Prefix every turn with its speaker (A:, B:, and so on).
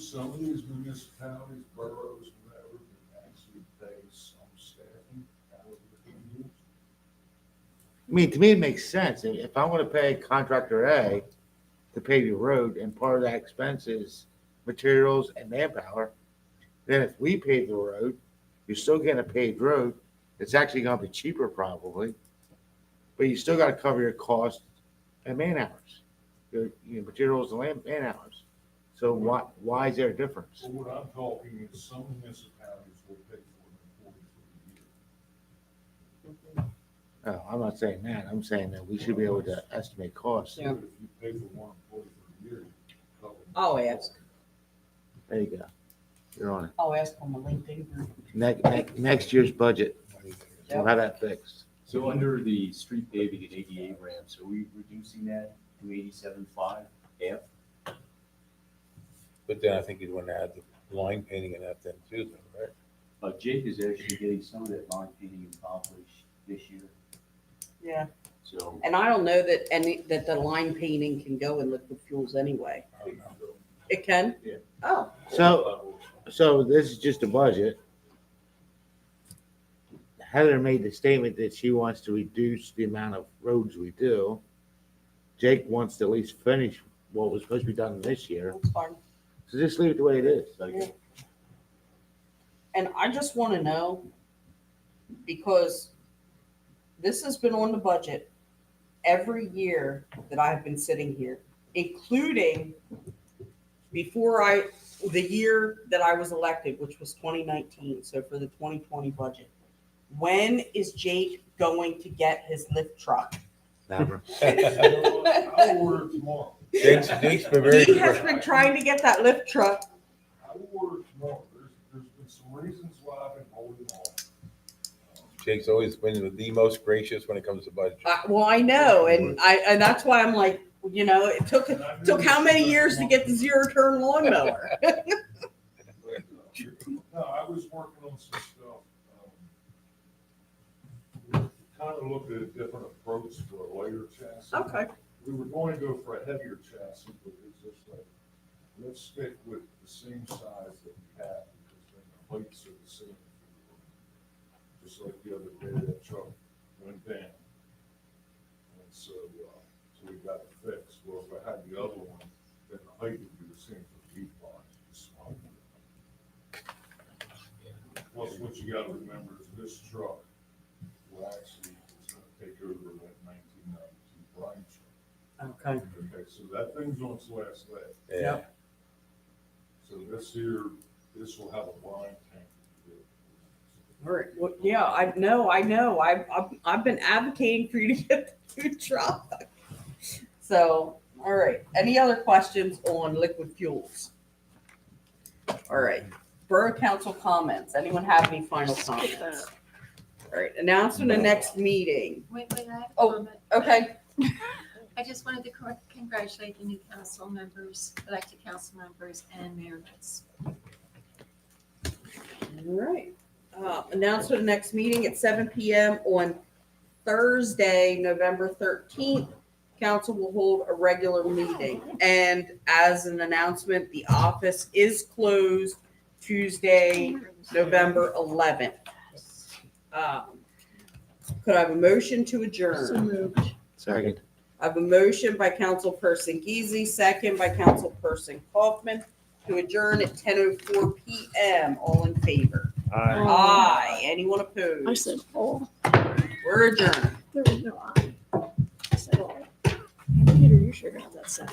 A: some of these municipalities, boroughs, whatever, can actually pay some staffing out of the unions.
B: I mean, to me, it makes sense. If- If I want to pay contractor A to pave your road and part of that expense is materials and manpower, then if we pave the road, you're still getting a paved road. It's actually going to be cheaper probably, but you still got to cover your cost and man hours, your, your materials and land, man hours. So why, why is there a difference?
A: But what I'm talking is some municipalities will pay for an employee for the year.
B: No, Oh, I'm not saying that. I'm saying that we should be able to estimate costs.
A: So if you pay for one employee for the year, you cover.
C: I'll ask.
B: There you go. You're on it.
C: I'll ask on the LinkedIn group.
B: Next, next, next year's budget. We'll have that fixed.
D: So under the street paving and ADA ramps, are we reducing that to eighty-seven five F?
E: But then I think you'd want to add the line painting and that then too, though, right?
D: Uh, Jake is actually getting some of that line painting accomplished this year,
C: Yeah,
D: so.
C: and I don't know that any, that the line painting can go in liquid fuels anyway.
A: I don't know.
C: It can?
D: Yeah.
C: Oh,
B: So, so this is just a budget. Heather made the statement that she wants to reduce the amount of roads we do. Jake wants to at least finish what was supposed to be done this year.
C: that's fine.
B: So just leave it the way it is.
D: Second,
C: And I just want to know, because this has been on the budget every year that I've been sitting here, including before I, the year that I was elected, which was 2019, so for the 2020 budget. When is Jake going to get his lift truck?
B: Never.
C: He
A: I will order it tomorrow.
E: Jake's, Jake's been very.
C: has been trying to get that lift truck.
A: I will order it tomorrow. There's, there's been some reasons why I've been holding off.
E: Jake's always been the most gracious when it comes to budget.
C: I- Well, I know, and I, and that's why I'm like, you know, it took, it
A: Uh, And I knew
C: took how
A: this
C: many
A: was
C: years to
A: wrong.
C: get the zero turn lawnmower?
A: No, I was working on some stuff. um, Kind of looked at a different approach for a lighter chassis.
C: Okay,
A: We were going to go for a heavier chassis, but it's just like, let's stick with the same size that we have because then the heights are the same. Just like the other day, that truck went down. And so, uh, so we got it fixed. Well, if I had the other one, then the height would be the same for the box, it's smaller. Plus, what you gotta remember is this truck will actually, it's gonna take over that nineteen ninety-two Bryant truck.
C: okay.
A: Okay, so that thing's on its last leg.
E: Yeah.
A: So this here, this will have a blind tank.
C: Very, well, yeah, I know, I know. I've, I've, I've been advocating for you to get the food truck. So, all right. Any other questions on liquid fuels? All right. Borough council comments. Anyone have any final comments? All right, announcement of next meeting.
F: Wait, wait, I have a
C: Oh,
F: comment.
C: Okay,
F: I just wanted to cor- congratulate the new council members, elected council members and mayor. Vince.
C: all right. Uh, announcement of next meeting at seven PM on Thursday, November thirteenth. Council will hold a regular meeting. And as an announcement, the office is closed Tuesday, November eleventh. Um, Could I have a motion to
F: So
C: adjourn?
F: moved.
B: Second.
C: I have a motion by Councilperson Geezy, second by Councilperson Kaufman to adjourn at ten oh four PM. All in favor? Aye. Anyone
G: I
C: opposed?
G: said, oh,
C: We're adjourned.
G: there was no I. I said, oh. Peter, you sure got that set.